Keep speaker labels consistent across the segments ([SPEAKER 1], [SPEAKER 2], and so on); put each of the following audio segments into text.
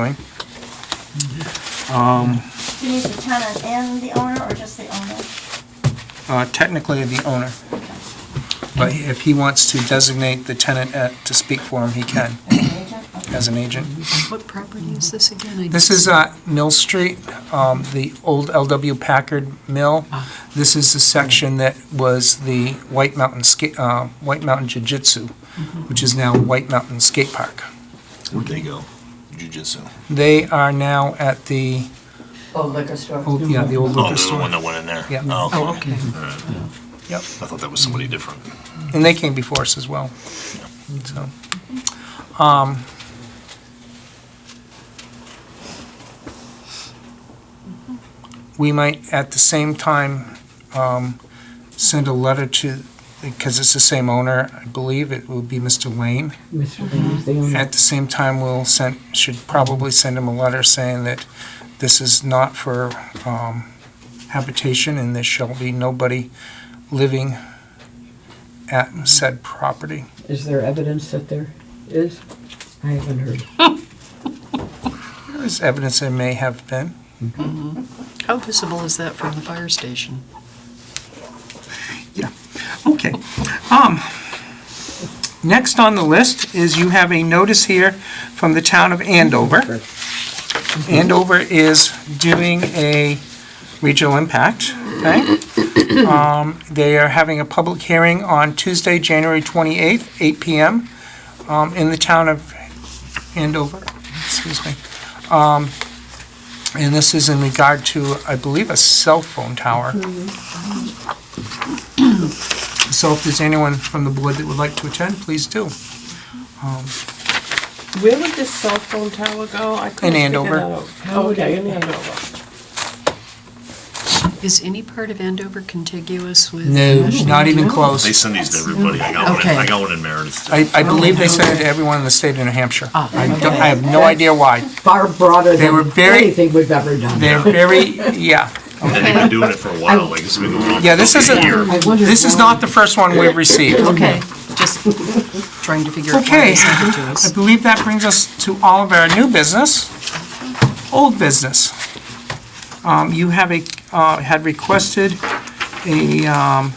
[SPEAKER 1] Wayne? Um,
[SPEAKER 2] Do you need the tenant and the owner, or just the owner?
[SPEAKER 1] Uh, Technically, the owner. But if he wants to designate the tenant uh, to speak for him, he can,
[SPEAKER 2] The agent? Okay.
[SPEAKER 1] as an agent.
[SPEAKER 3] What property is this again? I
[SPEAKER 1] This
[SPEAKER 3] didn't-
[SPEAKER 1] is uh, Mill Street, um, the old LW Packard Mill. This is the section that was the White Mountain Skate, White Mountain Jiu-Jitsu, which is now White Mountain Skate Park.
[SPEAKER 4] Where'd they go? Jiu-jitsu.
[SPEAKER 1] They are now at the,
[SPEAKER 5] Oh, liquor store.
[SPEAKER 1] old yeah, the old
[SPEAKER 4] Oh,
[SPEAKER 1] liquor
[SPEAKER 4] they're the one
[SPEAKER 1] store.
[SPEAKER 4] that went in there?
[SPEAKER 1] Yeah.
[SPEAKER 3] Oh, okay.
[SPEAKER 1] Yep.
[SPEAKER 4] I thought that was somebody different.
[SPEAKER 1] And they came before us as well. So, um, we might, at the same time, um, send a letter to, because it's the same owner, I believe, it will be Mr. Lane.
[SPEAKER 6] Mr. Lane's the owner.
[SPEAKER 1] At the same time, we'll send, should probably send him a letter saying that this is not for um, habitation and there shall be nobody living at said property.
[SPEAKER 6] Is there evidence that there is? I haven't heard.
[SPEAKER 1] There is evidence there may have been.
[SPEAKER 3] How visible is that from the fire station?
[SPEAKER 1] Okay. Um, Next on the list is you have a notice here from the town of Andover. Andover is doing a regional impact, okay? Um, They are having a public hearing on Tuesday, January 28th, 8 PM, um, in the town of Andover, excuse me. Um, And this is in regard to, I believe, a cell phone tower. So if there's anyone from the board that would like to attend, please do.
[SPEAKER 7] Where would this cell phone tower go? I couldn't
[SPEAKER 1] In
[SPEAKER 7] figure
[SPEAKER 1] Andover.
[SPEAKER 7] that out.
[SPEAKER 6] How would
[SPEAKER 7] Okay,
[SPEAKER 6] I-
[SPEAKER 7] in Andover.
[SPEAKER 3] Is any part of Andover contiguous with?
[SPEAKER 1] No,
[SPEAKER 3] National
[SPEAKER 1] not even
[SPEAKER 3] Guard?
[SPEAKER 4] They
[SPEAKER 1] close.
[SPEAKER 4] send these to everybody. I got one, in- I got one in Meredith. too.
[SPEAKER 1] I, I believe they sent it to everyone in the state of New Hampshire. I don't, I have no idea why.
[SPEAKER 6] Far broader
[SPEAKER 1] They were
[SPEAKER 6] than
[SPEAKER 1] very-
[SPEAKER 6] anything we've ever done.
[SPEAKER 1] They're very, yeah.
[SPEAKER 4] And they've been doing it for a while, like, it's been going on.
[SPEAKER 1] Yeah, this
[SPEAKER 4] for a
[SPEAKER 1] isn't-
[SPEAKER 4] year.
[SPEAKER 6] I wonder
[SPEAKER 1] This is
[SPEAKER 6] why.
[SPEAKER 1] not the first one we've received.
[SPEAKER 3] Okay, just trying to figure out why
[SPEAKER 1] Okay.
[SPEAKER 3] they sent it to
[SPEAKER 1] I
[SPEAKER 3] us.
[SPEAKER 1] believe that brings us to all of our new business, old business. Um, you have a, uh, had requested a, um,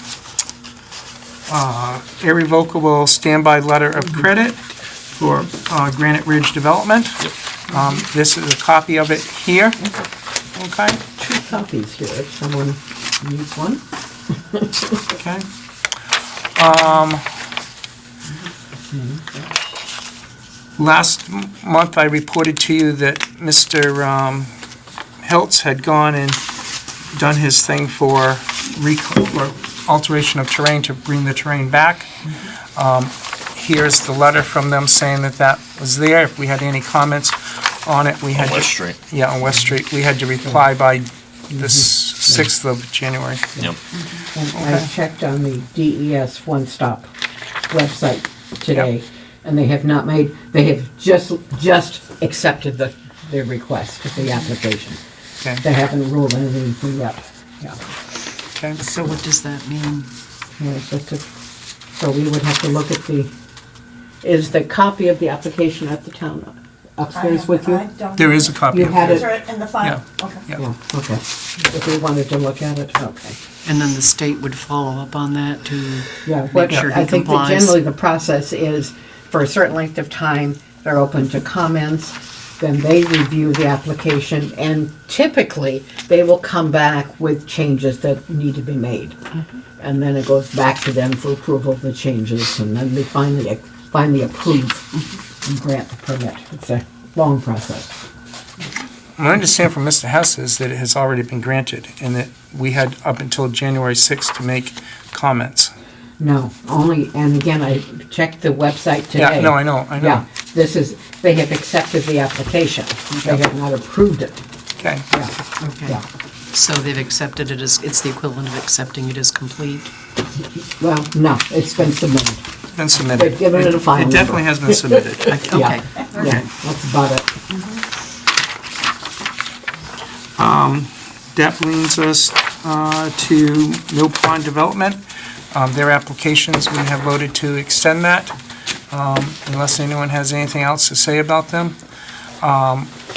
[SPEAKER 1] uh, irrevocable standby letter of credit for, uh, Granite Ridge Development. Um, this is a copy of it here, okay,
[SPEAKER 6] Two copies here, if someone needs one.
[SPEAKER 1] okay. Um, last m- month I reported to you that Mr. um, Hiltz had gone and done his thing for recl- or alteration of terrain to bring the terrain back. Um, Here's the letter from them saying that that was there. If we had any comments on it, we had.
[SPEAKER 4] On
[SPEAKER 1] to-
[SPEAKER 4] West Street.
[SPEAKER 1] Yeah, on West Street. We had to reply by the s- 6th of January.
[SPEAKER 4] Yep.
[SPEAKER 6] And I checked on the DES One Stop website today, and they have not made, they have just, just accepted the, their request, the application.
[SPEAKER 1] Okay.
[SPEAKER 6] They haven't ruled anything yet, yeah.
[SPEAKER 1] Okay.
[SPEAKER 3] So what does that mean?
[SPEAKER 6] Yeah, it's just a- So we would have to look at the, is the copy of the application at the town upstairs with you?
[SPEAKER 2] I don't-
[SPEAKER 1] There is a copy
[SPEAKER 6] You
[SPEAKER 1] of
[SPEAKER 6] had
[SPEAKER 1] it.
[SPEAKER 2] Is it in the file? Okay.
[SPEAKER 1] Yeah.
[SPEAKER 6] Yeah, okay. If we wanted to look at it, okay.
[SPEAKER 3] And then the state would follow up on that to,
[SPEAKER 6] Yeah, what,
[SPEAKER 3] sure he
[SPEAKER 6] I think that
[SPEAKER 3] complies.
[SPEAKER 6] generally the process is, for a certain length of time, they're open to comments, then they review the application, and typically, they will come back with changes that need to be made. And then it goes back to them for approval of the changes, and then they finally, finally approve and grant the permit. It's a long process.
[SPEAKER 1] My understanding from Mr. Hess is that it has already been granted, and that we had up until January 6th to make comments.
[SPEAKER 6] No, only, and again, I checked the website today.
[SPEAKER 1] Yeah, no, I know, I know.
[SPEAKER 6] Yeah, this is, they have accepted the application. They have not approved it.
[SPEAKER 1] Okay,
[SPEAKER 6] Yeah,
[SPEAKER 3] okay.
[SPEAKER 6] yeah.
[SPEAKER 3] So they've accepted it as, it's the equivalent of accepting it as complete?
[SPEAKER 6] Well, no, it's been submitted.
[SPEAKER 1] been submitted.
[SPEAKER 6] They've given it a file
[SPEAKER 1] It definitely
[SPEAKER 6] number.
[SPEAKER 1] has been submitted.
[SPEAKER 3] Okay.
[SPEAKER 6] Yeah, that's about it.
[SPEAKER 1] That brings us uh, to Mill Pond Development. Um, Their applications, we have voted to extend that, um, unless anyone has anything else to say about them. Um,